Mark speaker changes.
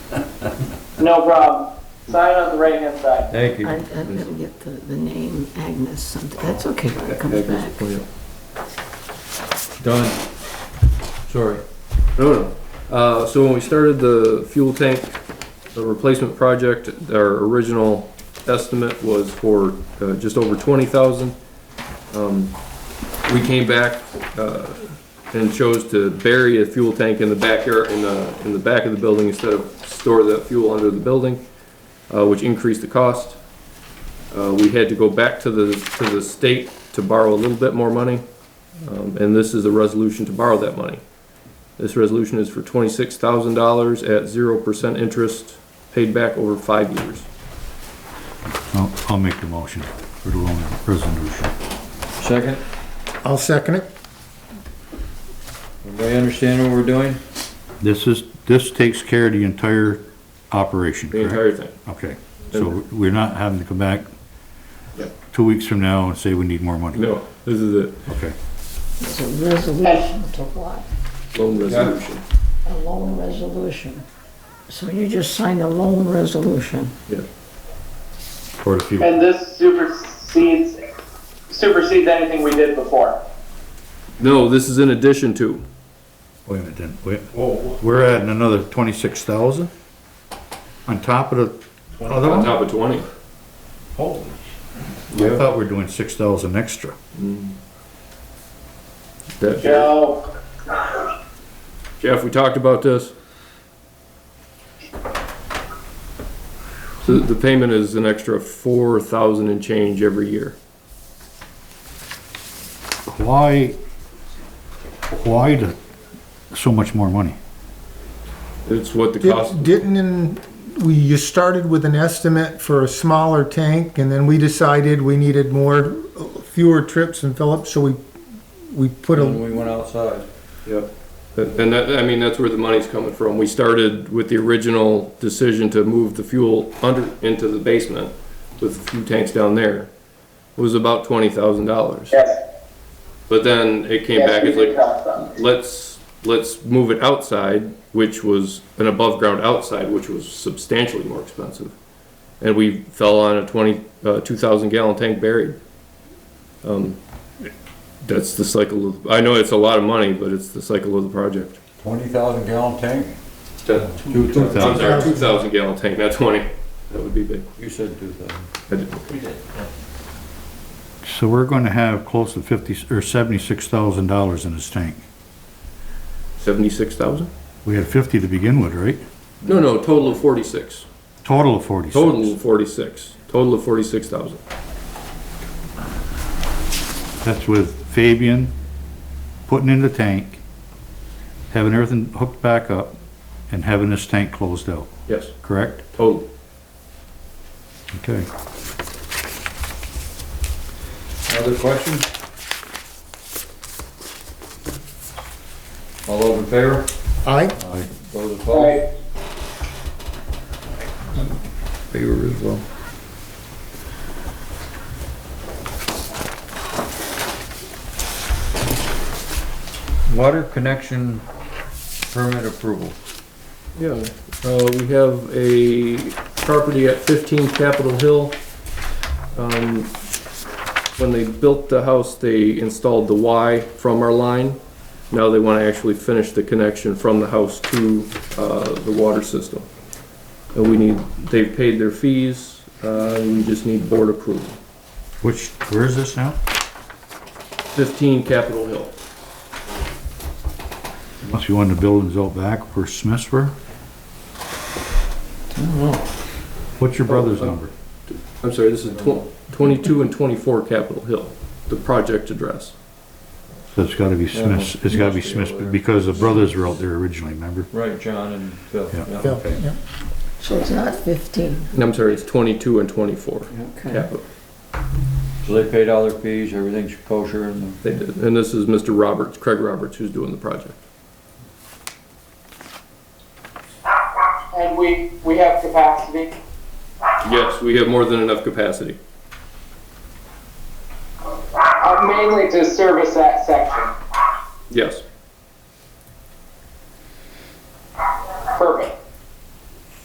Speaker 1: No problem. Sign on the right-hand side.
Speaker 2: Thank
Speaker 3: I,
Speaker 2: you.
Speaker 3: I don't get the, the name Agnes something. That's okay when it comes back.
Speaker 2: Done. Sorry.
Speaker 4: No, no.
Speaker 2: Uh, so when we started the fuel tank, the replacement project, our original estimate was for, uh, just over twenty thousand. Um, we came back, uh, and chose to bury a fuel tank in the backyard, in the, in the back of the building instead of store that fuel under the building, uh, which increased the cost. Uh, we had to go back to the, to the state to borrow a little bit more money, um, and this is a resolution to borrow that money. This resolution is for twenty-six thousand dollars at zero percent interest, paid back over five years.
Speaker 5: I'll, I'll make the motion for the loan resolution.
Speaker 4: Second,
Speaker 6: I'll second it.
Speaker 4: everybody understand what we're doing?
Speaker 5: This is, this takes care of the entire operation,
Speaker 2: The
Speaker 5: correct?
Speaker 2: entire thing.
Speaker 5: Okay, so we're not having to come back
Speaker 2: Yeah.
Speaker 5: two weeks from now and say we need more money?
Speaker 2: No, this is it.
Speaker 5: Okay,
Speaker 3: It's a resolution to what?
Speaker 2: Loan resolution.
Speaker 3: A loan resolution. So you just signed a loan resolution.
Speaker 5: for the fuel.
Speaker 1: And this supersedes, supersedes anything we did before.
Speaker 2: No, this is in addition to.
Speaker 5: Wait a minute then, wait. We're adding another twenty-six thousand? On top of the other
Speaker 2: On
Speaker 5: one?
Speaker 2: top of twenty.
Speaker 5: I thought we were doing six thousand extra.
Speaker 2: That-
Speaker 1: Joe,
Speaker 2: Jeff, we talked about this. So the payment is an extra four thousand and change every year.
Speaker 5: Why, why the, so much more money?
Speaker 2: It's what the cost,
Speaker 6: Did- Didn't, in- we, you started with an estimate for a smaller tank, and then we decided we needed more, uh, fewer trips in Phillips, so we, we put a,
Speaker 4: When we went outside.
Speaker 2: and that, I mean, that's where the money's coming from. We started with the original decision to move the fuel under, into the basement with a few tanks down there. It was about twenty thousand dollars.
Speaker 1: yes.
Speaker 2: But then it came
Speaker 1: yes,
Speaker 2: back,
Speaker 1: we
Speaker 2: it's
Speaker 1: did
Speaker 2: like,
Speaker 1: talk about it.
Speaker 2: let's, let's move it outside, which was an above ground outside, which was substantially more expensive. And we fell on a twenty, uh, two thousand gallon tank buried. Um, that's the cycle of, I know it's a lot of money, but it's the cycle of the project.
Speaker 4: Twenty thousand gallon tank? Two
Speaker 2: I'm
Speaker 4: thousand.
Speaker 2: sorry, two thousand gallon tank, not twenty, that would be big.
Speaker 4: You said two thousand.
Speaker 2: I did-
Speaker 5: So we're gonna have close to fifty, or seventy-six thousand dollars in this tank.
Speaker 2: Seventy-six thousand?
Speaker 5: We had fifty to begin with, right?
Speaker 2: No, no, total of forty-six,
Speaker 5: Total of forty-six.
Speaker 2: total of forty-six, total of forty-six thousand.
Speaker 5: That's with Fabian putting in the tank, having everything hooked back up, and having this tank closed out,
Speaker 2: Yes,
Speaker 5: correct?
Speaker 2: total.
Speaker 5: Okay.
Speaker 4: Other questions? All those in favor?
Speaker 6: I,
Speaker 4: Those
Speaker 1: All
Speaker 4: opposed?
Speaker 1: right.
Speaker 4: Favor as well. Water connection permit approval.
Speaker 2: Yeah, uh, we have a property at fifteen Capitol Hill. Um, when they built the house, they installed the Y from our line. Now they wanna actually finish the connection from the house to, uh, the water system. And we need, they've paid their fees, uh, we just need board approval.
Speaker 5: Which, where is this now?
Speaker 2: Fifteen Capitol Hill.
Speaker 5: Must be one of the buildings out back where Smiths were? What's your brother's
Speaker 2: Oh, uh,
Speaker 5: number?
Speaker 2: I'm sorry, this is tw- twenty-two and twenty-four Capitol Hill, the project address.
Speaker 5: So it's gotta be Smiths, it's gotta be
Speaker 4: must be
Speaker 5: Smiths,
Speaker 4: over there.
Speaker 5: because the brothers were out there originally, remember?
Speaker 4: Right, John and Phil.
Speaker 5: Yeah.
Speaker 6: yeah, yeah.
Speaker 3: So it's not fifteen,
Speaker 2: And I'm sorry, it's twenty-two and twenty-four
Speaker 3: okay.
Speaker 2: Capitol.
Speaker 4: So they paid all their fees, everything's kosher and
Speaker 2: They did, and this is Mr. Roberts, Craig Roberts, who's doing the project.
Speaker 1: And we, we have capacity.
Speaker 2: Yes, we have more than enough capacity.
Speaker 1: Uh, mainly to service that section.
Speaker 2: Yes.